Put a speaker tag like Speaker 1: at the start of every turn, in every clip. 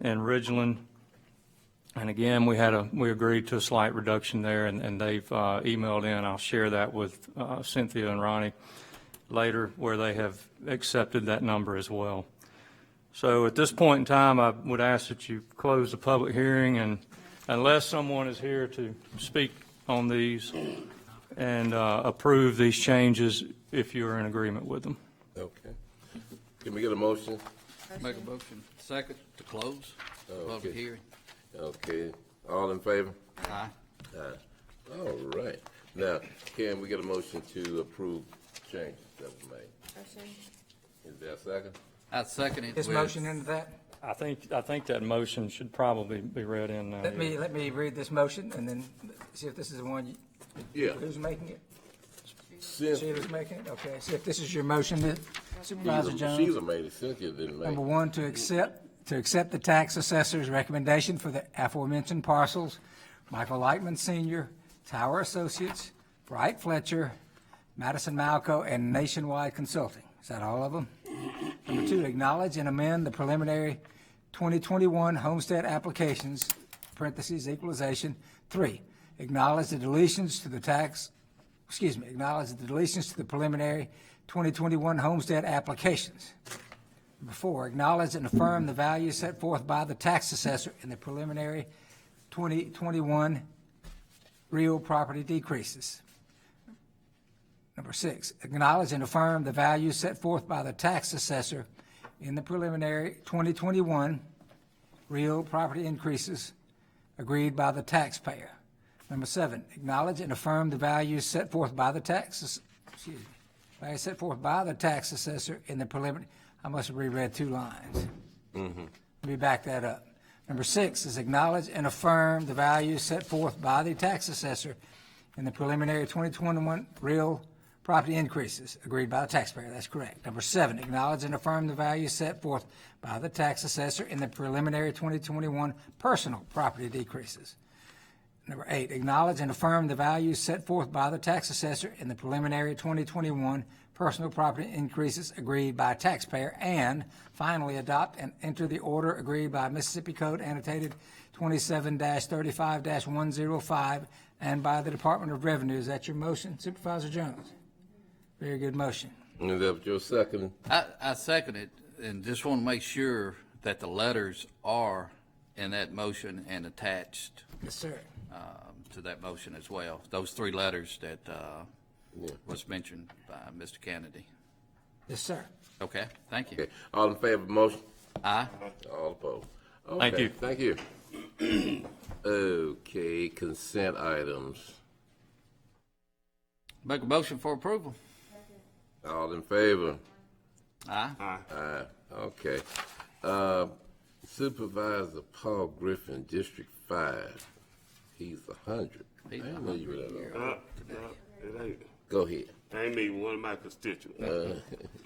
Speaker 1: and Ridgeland. And again, we had a, we agreed to a slight reduction there, and, and they've uh, emailed in, I'll share that with uh, Cynthia and Ronnie later, where they have accepted that number as well. So at this point in time, I would ask that you close the public hearing, and unless someone is here to speak on these and uh, approve these changes, if you're in agreement with them.
Speaker 2: Okay. Can we get a motion?
Speaker 3: Make a motion, second, to close the
Speaker 2: Okay.
Speaker 3: public hearing.
Speaker 2: Okay, all in favor?
Speaker 3: Aye.
Speaker 2: Aye. All right. Now, can we get a motion to approve changes that were made? Is there a second?
Speaker 3: I second it
Speaker 4: His
Speaker 3: with-
Speaker 4: motion into that?
Speaker 1: I think, I think that motion should probably be read in uh, now.
Speaker 4: Let me, let me read this motion and then see if this is the one, you-
Speaker 2: Yeah.
Speaker 4: who's making it?
Speaker 2: Cynthia,
Speaker 4: Sheila's making it? Okay, see if this is your motion that Supervisor Jones.
Speaker 2: Sheila made it, Cynthia didn't make
Speaker 4: Number
Speaker 2: it.
Speaker 4: one, to accept, to accept the tax assessor's recommendation for the aforementioned parcels, Michael Lightman Senior, Tower Associates, Bright Fletcher, Madison Malco, and Nationwide Consulting. Is that all of them? Number two, acknowledge and amend the preliminary 2021 homestead applications, parentheses, equalization. Three, acknowledge the deletions to the tax, excuse me, acknowledge the deletions to the preliminary 2021 homestead applications. Number four, acknowledge and affirm the value set forth by the tax assessor in the preliminary 2021 real property decreases. Number six, acknowledge and affirm the value set forth by the tax assessor in the preliminary 2021 real property increases agreed by the taxpayer. Number seven, acknowledge and affirm the values set forth by the taxes, excuse me, values set forth by the tax assessor in the preliminary, I must have reread two lines. Let me back that up. Number six is acknowledge and affirm the values set forth by the tax assessor in the preliminary 2021 real property increases agreed by the taxpayer. That's correct. Number seven, acknowledge and affirm the values set forth by the tax assessor in the preliminary 2021 personal property decreases. Number eight, acknowledge and affirm the values set forth by the tax assessor in the preliminary 2021 personal property increases agreed by taxpayer. And finally, adopt and enter the order agreed by Mississippi Code annotated 27-35-105 and by the Department of Revenue. Is that your motion, Supervisor Jones? Very good motion.
Speaker 2: Is that your second?
Speaker 3: I, I second it, and just want to make sure that the letters are in that motion and attached
Speaker 4: Yes, sir.
Speaker 3: um, to that motion as well. Those three letters that uh, was mentioned by Mr. Kennedy.
Speaker 4: Yes, sir.
Speaker 3: Okay, thank you.
Speaker 2: Okay, all in favor of the motion?
Speaker 3: Aye.
Speaker 2: All opposed?
Speaker 1: Thank
Speaker 2: Okay,
Speaker 1: you.
Speaker 2: Thank you. Okay, consent items.
Speaker 3: Make a motion for approval.
Speaker 2: All in favor?
Speaker 3: Aye.
Speaker 2: Aye. Okay. Uh, Supervisor Paul Griffin, District Five. He's a hundred. I
Speaker 3: He's
Speaker 2: didn't know you were that old.
Speaker 5: Uh, uh, It ain't,
Speaker 2: Go ahead.
Speaker 5: I ain't even one of my constituents.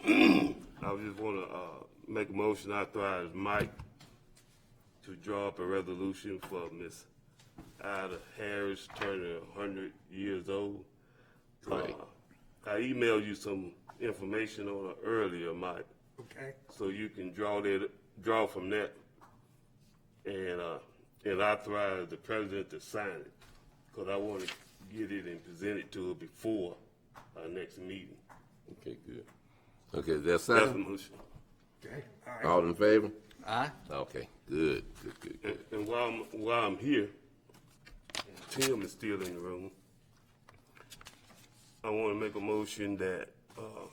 Speaker 5: I just wanna, uh, make a motion, I authorize Mike to draw up a resolution for Miss Ida Harris turning hundred years old.
Speaker 2: Right.
Speaker 5: Uh, I emailed you some information on her earlier, Mike. Okay. So you can draw that, draw from that and, uh, and authorize the president to sign it. Cause I wanna get it and present it to her before our next meeting.
Speaker 2: Okay, good. Okay, that's
Speaker 5: That's the
Speaker 2: second.
Speaker 5: motion.
Speaker 2: All in favor?
Speaker 3: Aye.
Speaker 2: Okay, good, good, good,
Speaker 5: And,
Speaker 2: good.
Speaker 5: and while I'm, while I'm here, Tim is still in the room. I want to make a motion that, um,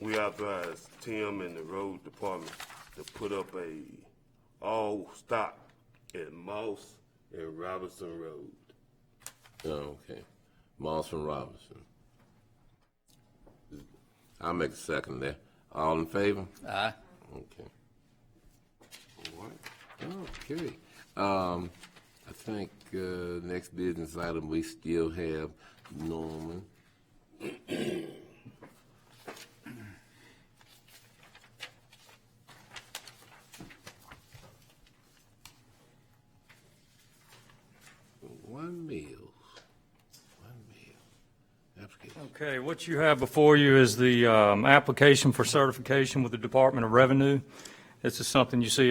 Speaker 5: we authorize Tim and the road department to put up a all stop at Moss and Robinson Road.
Speaker 2: Okay. Moss and Robinson. I'll make a second there. All in favor?
Speaker 3: Aye.
Speaker 2: Okay. All right. Okay. Um, I think, uh, next business item, we still have Norman. One meal, one meal, application.
Speaker 1: Okay, what you have before you is the um, application for certification with the Department of Revenue. This is something you see